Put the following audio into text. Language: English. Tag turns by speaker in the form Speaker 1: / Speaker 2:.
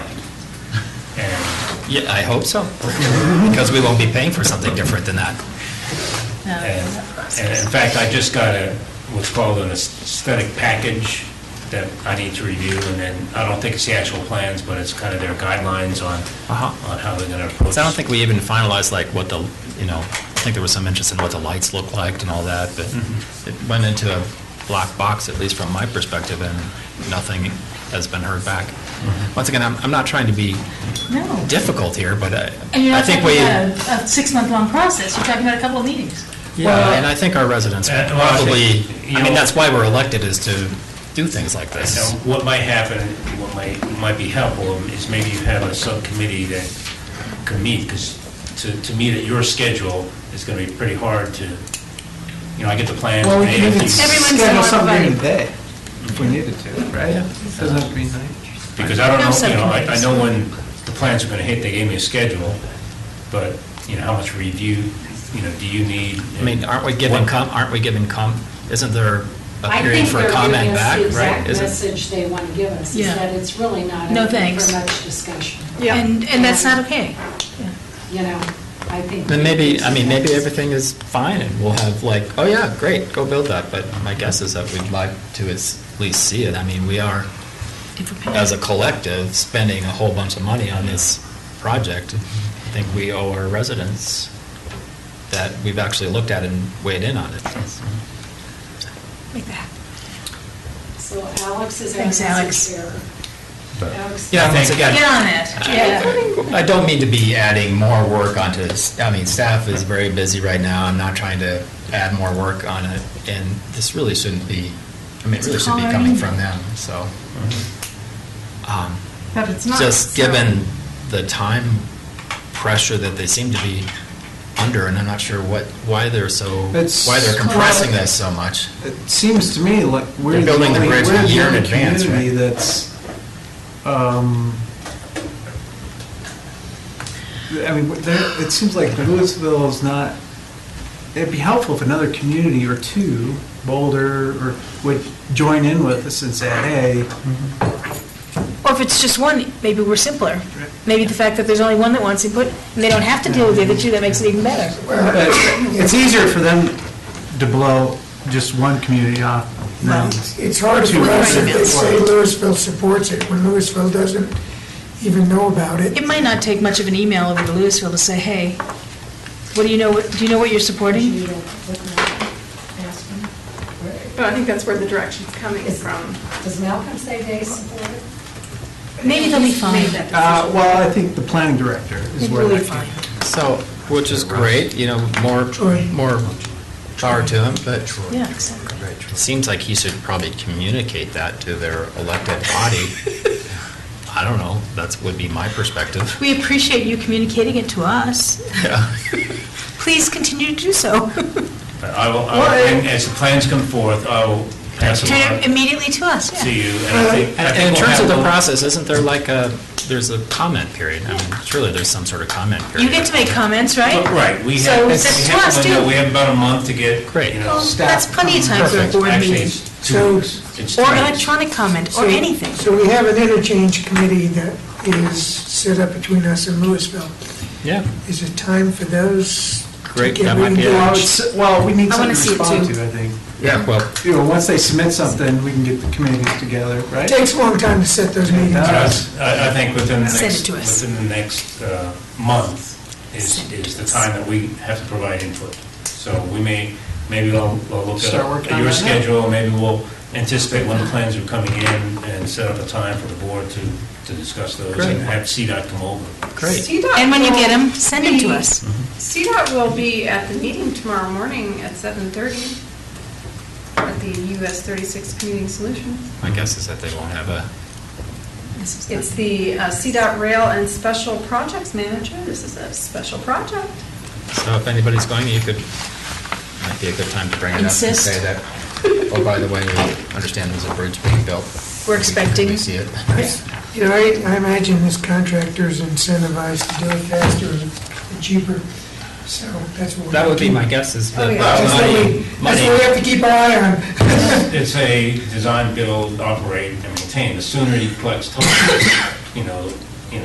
Speaker 1: Yeah, I hope so, because we won't be paying for something different than that.
Speaker 2: And and in fact, I just got a, what's called an aesthetic package that I need to review, and then, I don't think it's the actual plans, but it's kind of their guidelines on,
Speaker 1: Uh-huh.
Speaker 2: on how they're going to approach.
Speaker 1: So I don't think we even finalized like what the, you know, I think there was some interest in what the lights looked like and all that, but
Speaker 2: Mm-hmm.
Speaker 1: it went into a black box, at least from my perspective, and nothing has been heard back.
Speaker 2: Mm-hmm.
Speaker 1: Once again, I'm, I'm not trying to be
Speaker 3: No.
Speaker 1: difficult here, but I,
Speaker 3: And you're
Speaker 1: I
Speaker 3: not
Speaker 1: think
Speaker 3: talking
Speaker 1: we,
Speaker 3: about a- a six-month-long process, you're talking about a couple of meetings.
Speaker 1: well, and I think our residents
Speaker 2: Uh, well, I
Speaker 1: probably,
Speaker 2: think, you
Speaker 1: I mean,
Speaker 2: know-
Speaker 1: that's why we're elected is to do things like this.
Speaker 2: Now, what might happen, what might, might be helpful is maybe you have a subcommittee that can meet, because to, to meet at your schedule is going to be pretty hard to, you know, I get the plans.
Speaker 4: Well, we
Speaker 2: they-
Speaker 4: can even
Speaker 5: Everyone's
Speaker 4: schedule
Speaker 5: not
Speaker 4: something during the
Speaker 5: invited.
Speaker 4: day if we needed to, right? Doesn't have to be night.
Speaker 2: Because I don't
Speaker 5: No
Speaker 2: know, you know, I, I
Speaker 5: subcommittees.
Speaker 2: know when the plans are gonna hit, they gave me a schedule, but, you know, how much review, you know, do you need?
Speaker 1: I mean, aren't we giving, com? aren't we giving, com? isn't there a
Speaker 6: I
Speaker 1: period
Speaker 6: think
Speaker 1: for
Speaker 6: they're
Speaker 1: comment
Speaker 6: giving us
Speaker 1: back?
Speaker 6: the
Speaker 1: Right?
Speaker 6: exact
Speaker 1: Isn't-
Speaker 6: message they want to give us, is
Speaker 3: Yeah.
Speaker 6: that it's really not
Speaker 3: No
Speaker 6: open
Speaker 3: thanks.
Speaker 6: for much discussion.
Speaker 5: Yeah.
Speaker 3: And, and that's not okay.
Speaker 6: You know, I think.
Speaker 1: Then maybe, I mean, maybe everything is fine and we'll have like, oh yeah, great, go build that. But my guess is that we'd like to as- at least see it. I mean, we are, as a collective, spending a whole bunch of money on this project. I think we owe our residents that we've actually looked at and weighed in on it.
Speaker 3: Make that happen.
Speaker 6: So Alex is our
Speaker 3: Thanks, Alex.
Speaker 6: message here.
Speaker 2: But-
Speaker 6: Alex-
Speaker 1: Yeah, once
Speaker 2: think-
Speaker 1: again.
Speaker 3: Get on it, yeah.
Speaker 1: I don't mean to be adding more work onto, s- I mean, staff is very busy right now. I'm not trying to add more work on it. And this really shouldn't be, I mean, it really shouldn't be coming from them, so. um,
Speaker 3: But Mm-hmm. it's not.
Speaker 1: Just given the time pressure that they seem to be under, and I'm not sure what, why they're so,
Speaker 4: It's-
Speaker 1: why they're compressing this so much.
Speaker 4: It seems to me like we're
Speaker 1: They're
Speaker 4: the
Speaker 1: building the
Speaker 4: only, we're
Speaker 1: bridge a year
Speaker 4: the
Speaker 1: in
Speaker 4: only
Speaker 1: advance,
Speaker 4: community
Speaker 1: right?
Speaker 4: that's, um, I mean, there, it seems like Louisville is not, it'd be helpful if another community or two, Boulder, or would join in with us and say, hey,
Speaker 7: Or if it's just one, maybe we're simpler. Maybe the fact that there's only one that wants input, and they don't have to deal with the other two, that makes it even better.
Speaker 4: But It's easier for them to blow just one community off than
Speaker 8: It's it's hard for us if they say Louisville supports it, when Louisville doesn't even know about it.
Speaker 7: It might not take much of an email over to Louisville to say, hey, what do you know, do you know what you're supporting?
Speaker 5: But I think that's where the direction's coming from.
Speaker 6: Does Malcolm say they support it?
Speaker 7: Maybe they'll be fine.
Speaker 4: Uh, well, I think the planning director is where
Speaker 7: They'll be
Speaker 4: that came.
Speaker 7: fine.
Speaker 1: So, which is great, you know, more, more power to them, but
Speaker 7: Yeah, exactly.
Speaker 1: It seems like he should probably communicate that to their elected body. I don't know, that would be my perspective.
Speaker 7: We appreciate you communicating it to us.
Speaker 1: Yeah.
Speaker 7: Please continue to do so.
Speaker 2: But I will, I will- and as the plans come forth, I will pass it
Speaker 7: Turn it
Speaker 2: on
Speaker 7: immediately to us,
Speaker 2: to
Speaker 7: yeah. Uh-huh.
Speaker 2: you, and I think. I
Speaker 1: And
Speaker 2: think
Speaker 1: and in
Speaker 2: we'll
Speaker 1: terms of
Speaker 2: have
Speaker 1: the
Speaker 2: a-
Speaker 1: process, isn't there like a, there's a comment period? I mean, surely there's some sort of comment period.
Speaker 7: You get to make comments, right?
Speaker 2: Well, Right, we
Speaker 7: So
Speaker 2: have, we
Speaker 7: that's to us,
Speaker 2: have,
Speaker 7: too.
Speaker 2: we have about a month to get,
Speaker 1: Great.
Speaker 2: you know.
Speaker 7: Well, That's plenty of time for a
Speaker 1: Perfect.
Speaker 7: board
Speaker 2: Actually,
Speaker 7: meeting.
Speaker 2: it's two
Speaker 8: So-
Speaker 2: weeks. It's two
Speaker 7: Or
Speaker 2: weeks.
Speaker 7: electronic comment, or anything.
Speaker 8: So we have an interchange committee that is set up between us and Louisville.
Speaker 1: Yeah,
Speaker 8: Is it time for those to
Speaker 1: Great,
Speaker 8: get
Speaker 1: that might be a-
Speaker 4: Well,
Speaker 8: reengaged?
Speaker 4: it's- Well, we need
Speaker 7: I
Speaker 4: something to
Speaker 7: wanna see it
Speaker 4: respond
Speaker 7: too.
Speaker 4: to, I think.
Speaker 1: yeah, well,
Speaker 4: You know, once they submit something, we can get the communities together, right?
Speaker 8: It takes a long time to set those meetings.
Speaker 4: Yeah.
Speaker 2: I
Speaker 8: up.
Speaker 2: I think within the
Speaker 7: Send it
Speaker 2: next,
Speaker 7: to us.
Speaker 2: within the next uh, month is, is the time that we have to provide input. So we may, maybe I'll, I'll look
Speaker 4: Start working
Speaker 2: at
Speaker 4: on
Speaker 2: your
Speaker 4: that now.
Speaker 2: schedule, maybe we'll anticipate when the plans are coming in and set up a time for the board to, to discuss those
Speaker 1: Great.
Speaker 2: and have CDOT come over.
Speaker 1: great.
Speaker 7: And when you get them, send them to us.
Speaker 5: CDOT will be at the meeting tomorrow morning at 7:30 at the US 36 Community Solutions.
Speaker 1: My guess is that they won't have a,
Speaker 5: It's the uh, CDOT Rail and Special Projects Manager. This is a special project.
Speaker 1: so if anybody's going, you could, might be a good time to bring it up and
Speaker 7: Insist.
Speaker 1: say that, oh, by the way, we understand there's a bridge being built.
Speaker 7: We're
Speaker 1: We can
Speaker 7: expecting.
Speaker 1: really see it.
Speaker 8: You know, I, I imagine this contractor's incentivized to do it faster and cheaper, so that's what. we
Speaker 1: That would be
Speaker 8: keep-
Speaker 1: my guess is the
Speaker 5: Oh,
Speaker 1: uh,
Speaker 5: yeah.
Speaker 8: That's what we-
Speaker 1: money,
Speaker 8: that's what we
Speaker 1: money,
Speaker 8: have to keep our eye on.
Speaker 2: It's a design, build, operate, and maintain. The sooner you collect, toll, you know,